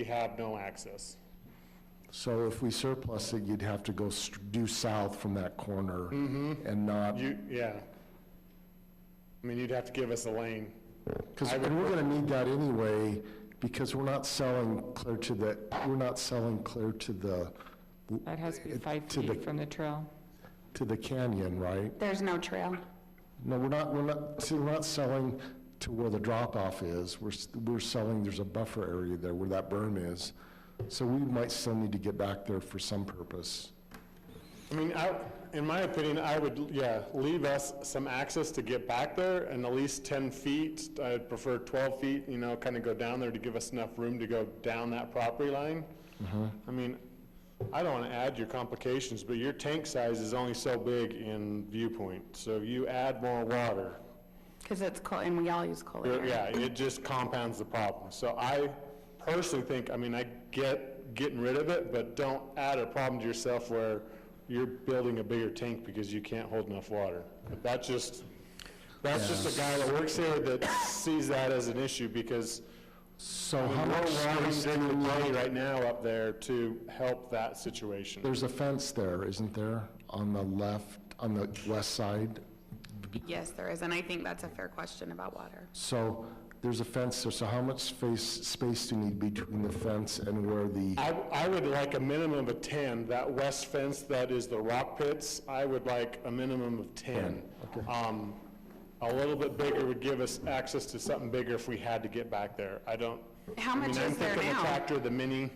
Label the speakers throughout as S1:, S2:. S1: We have no access.
S2: So if we surplus it, you'd have to go st- due south from that corner and not,
S1: You, Mm-hmm. yeah. I mean, you'd have to give us a lane.
S2: because,
S1: I would-
S2: and we're going to need that anyway, because we're not selling clear to the, we're not selling clear to the,
S3: That has to be five
S2: To the-
S3: feet from the trail.
S2: to the canyon, right?
S4: There's no trail.
S2: No, we're not, we're not, see, we're not selling to where the drop-off is. We're, s- we're selling, there's a buffer area there where that berm is. So we might still need to get back there for some purpose.
S1: I mean, I, in my opinion, I would, yeah, leave us some access to get back there and at least ten feet. I'd prefer twelve feet, you know, kind of go down there to give us enough room to go down that property line. I mean, I don't want to add your complications, but your tank size is only so big in viewpoint. So if you add more water,
S4: Because it's coal, and we all use coal
S1: There-
S4: air.
S1: Yeah, it just compounds the problem. So I personally think, I mean, I get getting rid of it, but don't add a problem to yourself where you're building a bigger tank because you can't hold enough water. But That's just, that's just a guy that works here that sees that as an issue because
S2: So
S1: we're
S2: how much space
S1: wanting
S2: do
S1: the
S2: we
S1: money right now up there to help that situation.
S2: There's a fence there, isn't there, on the left, on the west side?
S4: Yes, there is, and I think that's a fair question about water.
S2: So there's a fence there, so how much space, space do you need between the fence and where the,
S1: I, I would like a minimum of 10, that west fence that is the rock pits, I would like a minimum of 10. Um, A little bit bigger would give us access to something bigger if we had to get back there. I don't.
S4: How
S1: I mean,
S4: much
S1: I'm
S4: is there
S1: thinking the
S4: now?
S1: tractor, the mini,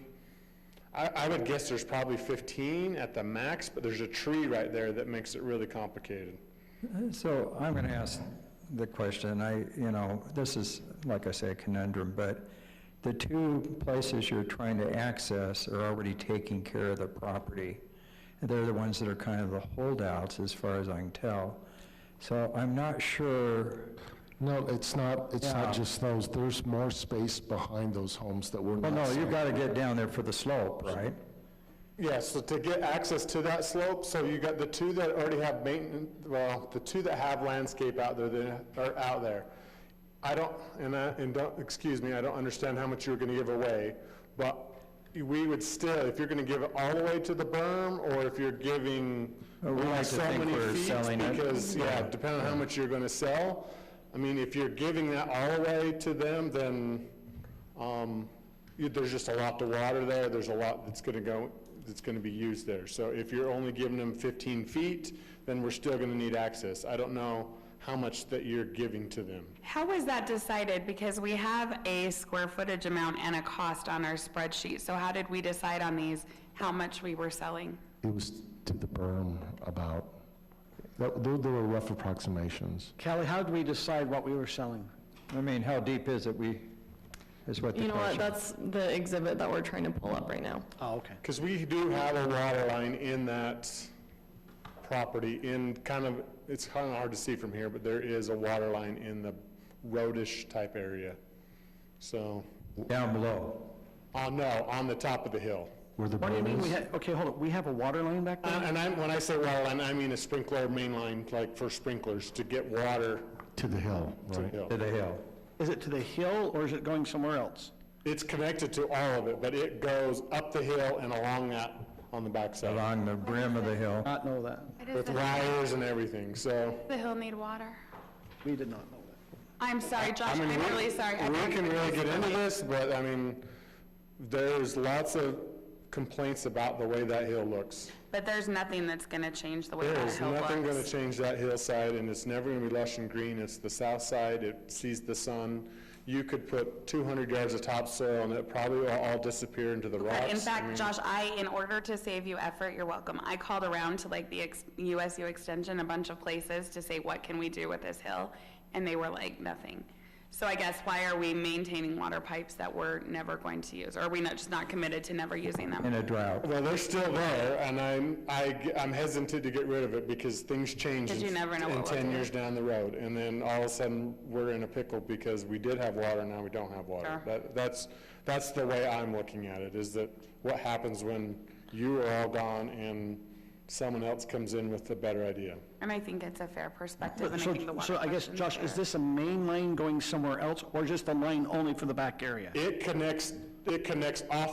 S1: I, I would guess there's probably 15 at the max, but there's a tree right there that makes it really complicated.
S5: So I'm going to ask the question, I, you know, this is, like I say, a conundrum, but the two places you're trying to access are already taking care of the property. And They're the ones that are kind of the holdouts, as far as I can tell. So I'm not sure,
S2: no, it's not, it's
S5: Yeah.
S2: not just those, there's more space behind those homes that
S6: Oh,
S2: we're
S5: well,
S2: not.
S5: no,
S2: selling.
S5: you've got to get down there for the slope, right?
S1: Yeah, so to get access to that slope, so you got the two that already have maintenance, well, the two that have landscape out there, that are out there. I don't, and I, and don't, excuse me, I don't understand how much you were gonna give away, but we would still, if you're gonna give it all the way to the berm, or if you're giving
S5: Uh, we like to
S1: so
S5: think
S1: many
S5: we're
S1: feet,
S5: selling it.
S1: Because, yeah, depending on how much you're gonna sell, I mean, if you're giving that all the way to them, then, um, you- There's just a lot to water there, there's a lot that's going to go, that's going to be used there. So if you're only giving them 15 feet, then we're still going to need access. I don't know how much that you're giving to them.
S4: How was that decided? Because we have a square footage amount and a cost on our spreadsheet, so how did we decide on these, how much we were selling?
S2: It was to the berm about, that- there there were rough approximations.
S6: Kelly, how did we decide what we were selling?
S5: I mean, how deep is it, we, is what
S7: You
S5: the
S7: know what,
S5: question.
S7: that's the exhibit that we're trying to pull up right now.
S6: Oh, okay.
S1: Because we do have a water line in that property, in kind of, it's kind of hard to see from here, but there is a water line in the roadish type area. So,
S5: Down below.
S1: oh no, on the top of the hill.
S2: Where the
S6: What do you
S2: berm
S6: mean we
S2: is?
S6: had, okay, hold on, we have a water line back
S1: And
S6: there?
S1: Uh, and I'm, when I say water line, I mean a sprinkler main line, like for sprinklers, to get water
S2: To the hill,
S1: to the
S2: right?
S1: hill.
S5: To the hill.
S6: Is it to the hill or is it going somewhere else?
S1: It's connected to all of it, but it goes up the hill and along that, on the backside,
S5: Along the brim of the hill.
S6: Not know that.
S1: with wires and everything, so.
S4: The hill need water?
S6: We did not know that.
S4: I'm sorry, Josh,
S1: I mean,
S4: I'm
S1: we-
S4: really sorry. I
S1: We
S4: don't
S1: can
S4: know.
S1: really get into this, but I mean, there's lots of complaints about the way that hill looks.
S4: But there's nothing that's gonna change the way
S1: There
S4: that
S1: is
S4: hill
S1: nothing gonna
S4: looks.
S1: change that hillside, and it's never gonna be lush and green, it's the south side, it sees the sun. You could put two hundred yards of topsoil, and it probably will all disappear into the rocks.
S4: But in
S1: I
S4: fact,
S1: mean-
S4: Josh, I, in order to save you effort, you're welcome, I called around to like the ex- USU Extension, a bunch of places to say, what can we do with this hill? And they were like, nothing. So I guess why are we maintaining water pipes that we're never going to use? Or are we not, just not committed to never using them?
S5: In a drought.
S1: Well, they're still there, and I'm, I, am hesitant to get rid of it because things change.
S4: 'Cause you
S1: in-
S4: never know
S1: in
S4: what we'll
S1: ten
S4: do.
S1: years down the road, and then all of a sudden, we're in a pickle because we did have water, now we don't have water.
S4: Sure.
S1: That, that's, that's the way I'm looking at it, is that what happens when you are all gone and someone else comes in with a better idea?
S4: And I think it's a fair perspective, and I think the water
S6: So, so I guess,
S4: question's
S6: Josh,
S4: fair.
S6: is this a main line going somewhere else or just a line only for the back area?
S1: It connects it connects off